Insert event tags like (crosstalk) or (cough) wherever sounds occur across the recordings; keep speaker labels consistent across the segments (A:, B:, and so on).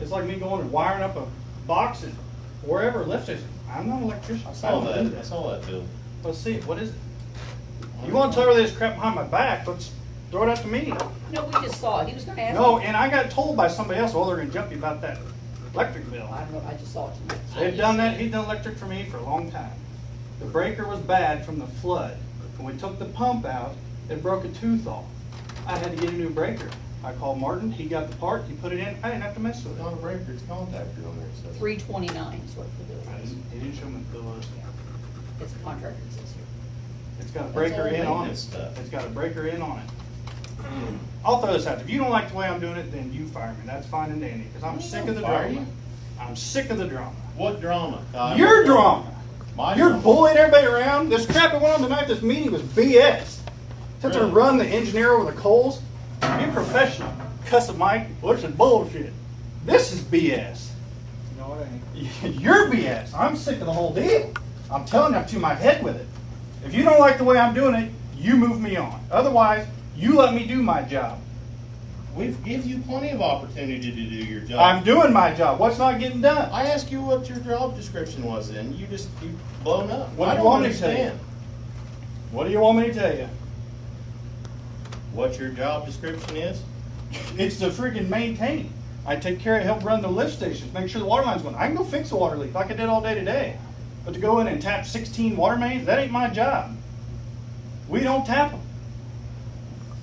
A: It's like me going and wiring up a box at wherever, lift station. I'm not an electrician.
B: I
A: I
B: saw
A: don't do
B: that, I saw that bill.
A: Let's see, what is it? You wanna tell her this crap behind my back, let's throw it out to me.
C: No, we just saw it. He was gonna ask.
A: No,
C: me.
A: and I got told by somebody else, well, they're gonna jump you about that electric bill.
C: I don't know, I just saw it tonight.
A: They've done that, he's done electric for me for a long time. The breaker was bad from the flood. When we took the pump out, it broke a tooth off. I had to get a new breaker. I called Martin, he got the part, he put it in, I didn't have to mess with
B: It's
A: it.
B: not a breaker, it's contactor on there, it says.
C: Three twenty-nine is what the bill
A: I
C: is.
A: didn't- He didn't show me the bill. list.
C: It's contractor that says here.
A: It's got a breaker
B: all
A: in on it.
B: maintenance stuff.
A: It's got a breaker in on it. I'll throw this out, if you don't like the way I'm doing it, then you fire me, that's fine and dandy, because I'm
B: We
A: sick
B: don't
A: of the
B: fire
A: drama.
B: you.
A: I'm sick of the drama.
B: What drama? Kyle?
A: Your drama!
B: My
A: You're
B: drama.
A: bullying everybody around. This crap that went on tonight, this meeting was BS. Since to
B: Really?
A: run the engineer over the coals, you're professional. Cuss a mic, what's some bullshit? This is BS.
D: No, it ain't.
A: (laughs) You're BS. I'm sick of the whole deal. I'm telling you, I'm to my head with it. If you don't like the way I'm doing it, you move me on. Otherwise, you let me do my job.
B: We've give you plenty of opportunity to do your job.
A: I'm doing my job. What's not getting done?
B: I asked you what your job description was and you just, you blown up.
A: What
B: I
A: do you
B: don't
A: want me to tell you?
B: understand
A: What do you want me to tell you?
B: What your job description is?
A: It's to freaking maintain. I take care of, help run the lift stations, make sure the water line's going. I can go fix a water leak like I did all day today. But to go in and tap 16 water mains, that ain't my job. We don't tap them.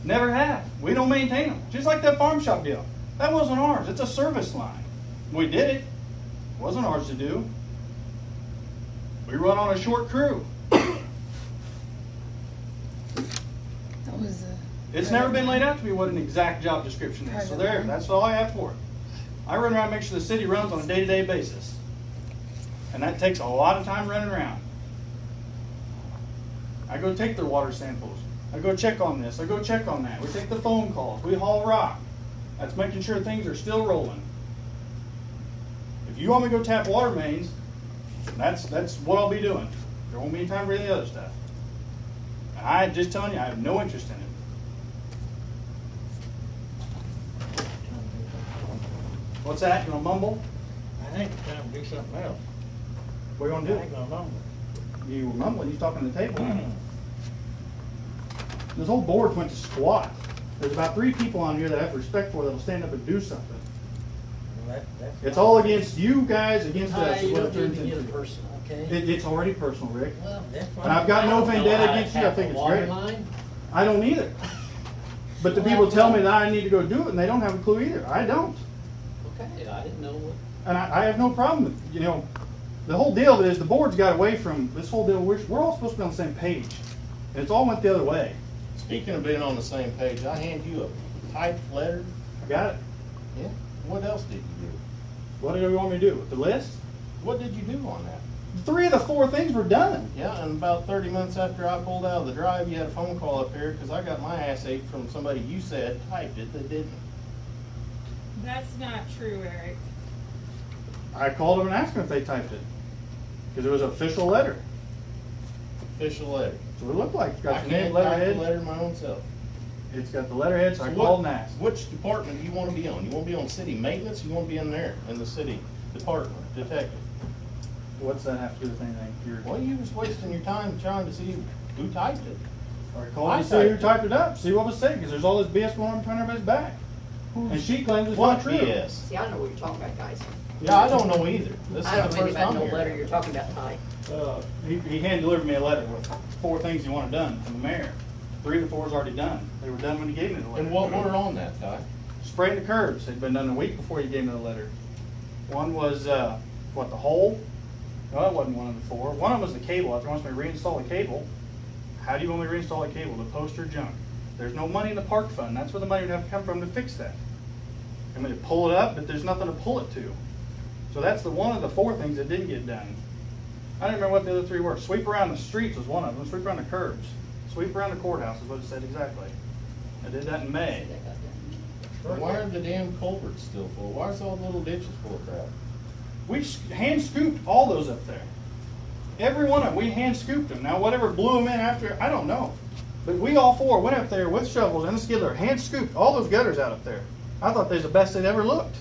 A: Never have. We don't maintain them. Just like that farm shop deal. That wasn't ours. It's a service line. We did it. Wasn't ours to do. We run on a short crew.
E: That was uh
A: It's never been laid out to me what an exact job description is, so there, that's all I have for it. I run around, and make sure the city runs on a day-to-day basis. And that takes a lot of time running around. I go take their water samples, I go check on this, I go check on that, we take the phone calls, we haul rock. That's making sure things are still rolling. If you want me to go tap water mains, that's, that's what I'll be doing. There won't be any time for any other stuff. And I, just telling you, I have no interest in it. What's that? You gonna mumble?
D: I think it's time to do something else.
A: What are you
D: I
A: gonna
D: ain't
A: do?
D: gonna mumble.
A: You were mumbling, you talking to the (clears throat) table. This whole board went to squat. There's about three people on here that I have respect for that'll stand up and do something.
D: That- that's
A: (clears throat) It's
D: not-
A: all against you guys, against
D: Hi,
A: us, is
D: you
A: what
D: don't
A: it
D: need
A: turns
D: to get
A: into.
D: personal, okay?
A: It, it's already personal, Rick.
D: Well, that's why-
A: And I've got
D: I
A: no
D: don't know
A: vendetta
D: how to
A: against you, I
D: tap
A: think
D: a
A: it's
D: water
A: great.
D: line.
A: I don't either. But the people tell me that I need to go do it and they don't have a clue either. I don't.
D: Okay, I didn't know what.
A: And I, I have no problem with, you know, the whole deal is the board's got away from this whole deal. We're, we're all supposed to be on the same page. And it's all went the other way.
B: Speaking of being on the same page, I hand you a typed letter.
A: I got it.
B: Yeah. What else did you do?
A: What do you want me to do? The list?
B: What did you do on that?
A: Three of the four things were done.
B: Yeah, and about thirty months after I pulled out of the drive, you had a phone call up here, cause I got my ass ate from somebody you said typed it that didn't.
F: That's not true, Eric.
A: I called them and asked them if they typed it. Because it was an official letter.
B: Official letter.
A: That's what it looked like. It's
B: I
A: got your name,
B: can't type the
A: letterhead.
B: letter my own self.
A: It's got the letterhead, so I
B: So
A: called
B: what-
A: and asked.
B: Which department do you wanna be on? You wanna be on city maintenance, you wanna be in there, in the city department, detective?
A: What's that have to do with anything? You're,
B: Well, you was wasting your time trying to see who typed it.
A: I called
B: I
A: and see who
B: typed it.
A: typed it up, see what was said, because there's all this BS going on behind everybody's back. And she claims it's not
B: What
A: true.
B: BS?
C: See, I don't know what you're talking about, guys.
B: Yeah, I don't know either. This is
C: I don't
B: the
C: know anything
B: first
C: about
B: time
C: no letter
B: here.
C: you're talking about, Ty.
A: Uh, he, he hand delivered me a letter with four things he wanted done from the mayor. Three of the four's already done. They were done when he gave me the letter.
B: And what were on that, Ty?
A: Spraying the curbs had been done a week before he gave me the letter. One was, uh, what, the hole? No, that wasn't one of the four. One of them was the cable. After he wants me to reinstall the cable, how do you want me to reinstall the cable? The poster junk. There's no money in the park fund. That's where the money would have to come from to fix that. I mean, to pull it up, but there's nothing to pull it to. So that's the one of the four things that didn't get done. I don't remember what the other three were. Sweep around the streets was one of them. Sweep around the curbs. Sweep around the courthouse is what it said exactly. I did that in May.
C: That got done.
B: Why are the damn culverts still full? Why is all the little ditches full of crap?
A: We s- hand scooped all those up there. Every one of them, we hand scooped them. Now, whatever blew them in after, I don't know. But we all four went up there with shovels and a skidler, hand scooped all those gutters out up there. I thought they was the best they'd ever looked.